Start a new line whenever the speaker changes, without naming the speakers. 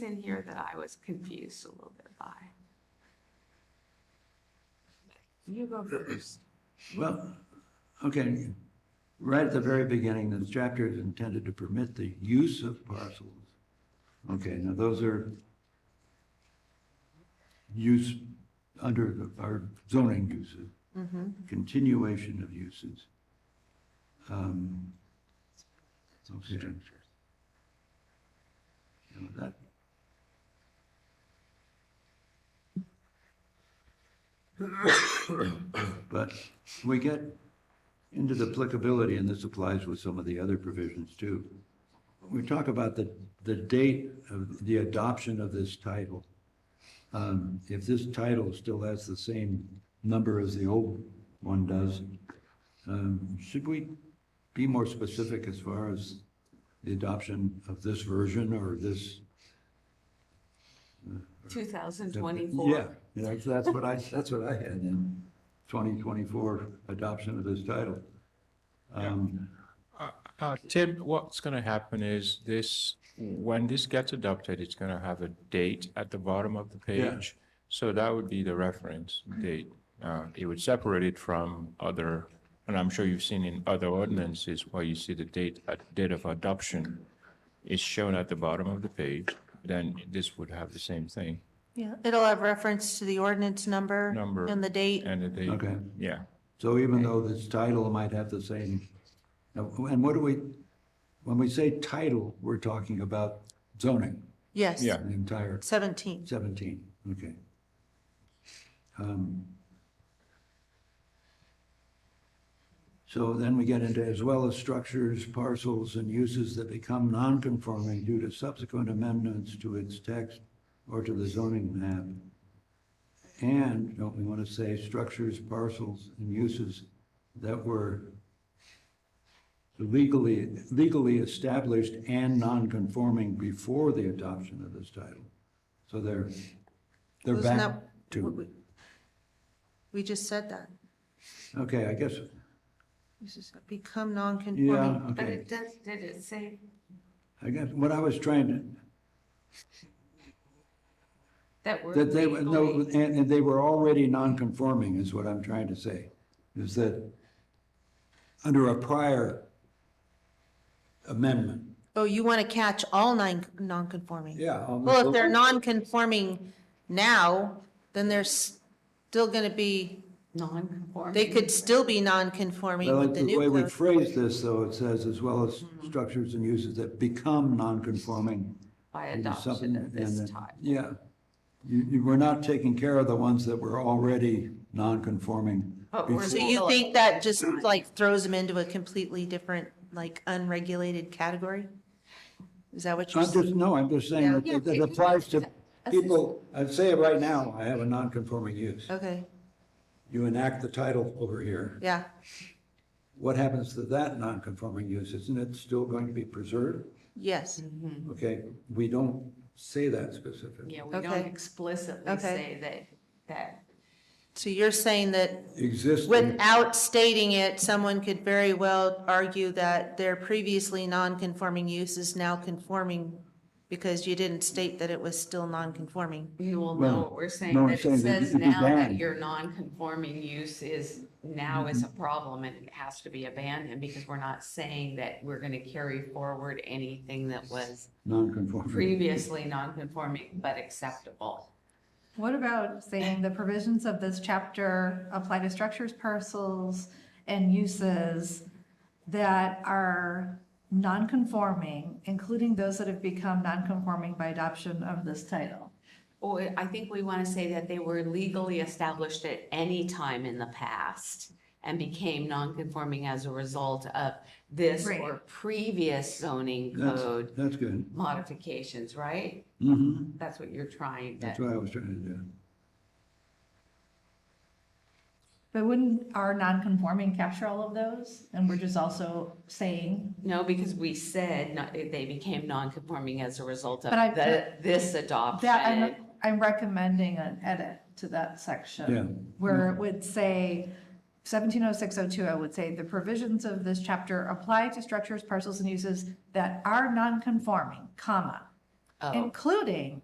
in here that I was confused a little bit by. You go first.
Well, okay, right at the very beginning, this chapter is intended to permit the use of parcels. Okay, now those are use under the- our zoning uses, continuation of uses. Um, Okay. Now that- But we get into the applicability, and this applies with some of the other provisions too. We talk about the, the date of the adoption of this title. Um, If this title still has the same number as the old one does, um, should we be more specific as far as the adoption of this version or this?
2024.
Yeah, yeah, that's- that's what I, that's what I had in 2024 adoption of this title. Um,
Uh, Tim, what's going to happen is this, when this gets adopted, it's going to have a date at the bottom of the
Yeah.
page. So that would be the reference date. Uh, It would separate it from other, and I'm sure you've seen in other ordinances where you see the date, uh, date of adoption is shown at the bottom of the page, then this would have the same thing,
Yeah, it'll have reference to the ordinance number.
Number.
And the date.
and the date,
Okay.
yeah.
So even though this title might have the same, and what do we, when we say title, we're talking about zoning,
Yes.
Yeah.
the entire
Seventeen.
17, okay. Um, So then we get into as well as structures, parcels, and uses that become nonconforming due to subsequent amendments to its text or to the zoning map. And don't we want to say structures, parcels, and uses that were legally, legally established and nonconforming before the adoption of this title? So they're, they're
Wasn't
back
that what
to,
we- We just said that.
okay, I guess,
This is become
yeah,
non-conforming.
But
okay.
it does, did it say,
I guess what I was trying to,
that we're
that they, were- no,
legally,
and, and they were already non-conforming is what I'm trying to say, is that under a prior amendment.
Oh, you want to catch all nine, non-conforming?
Yeah.
Well, if they're non-conforming now, then they're still going to be,
non-conforming?
they could still be non-conforming
I
with
like
the
the
new
way we
code. Mm-hmm.
phrase this, though, it says as well as structures and uses that become non-conforming.
By
into
adoption
something
of
and
this
then-
type.
Yeah. You, you were not taking care of the ones that were already non-conforming.
But we're
before.
So you think that just like throws them into a completely different, like unregulated category? Is that what you're
I'm
saying?
just, no, I'm just saying
Yeah.
that it- that applies to people, I'd say it right now, I have a non-conforming use.
Okay,
You enact the title over here.
yeah.
What happens to that non-conforming use? Isn't it still going to be preserved?
Yes,
Okay, we don't say that specifically.
Yeah, we don't
Okay.
explicitly
Okay.
say that, that,
so you're saying that
Existing,
without stating it, someone could very well argue that their previously non-conforming use is now conforming because you didn't state that it was still non-conforming.
you will know
Well,
what we're saying,
no, I'm
that
saying
it
that
says
it'd be
now that
banned.
your non-conforming use is, now is a
Mm-hmm.
problem and it has to be abandoned because we're not saying that we're gonna carry forward anything that was
non-conforming.
previously non-conforming but acceptable.
What about saying the provisions of this chapter apply to structures, parcels, and uses that are non-conforming, including those that have become non-conforming by adoption of this title?
Or I think we want to say that they were legally established at any time in the past and became nonconforming as a result of this
Right.
or previous zoning
That's,
code
that's good.
modifications, right?
hmm
That's what you're trying
that's
to,
what I was trying to do.
But wouldn't our non-conforming capture all of those? And we're just also saying,
no, because we said not- they became nonconforming as a result of
But I-
the- this
that, I'm,
adoption.
I'm recommending an edit to that section.
Yeah.
Where it would say, seventeen oh six oh two, I would say, the provisions of this chapter apply to structures, parcels, and uses that are non-conforming, comma,
Oh.
including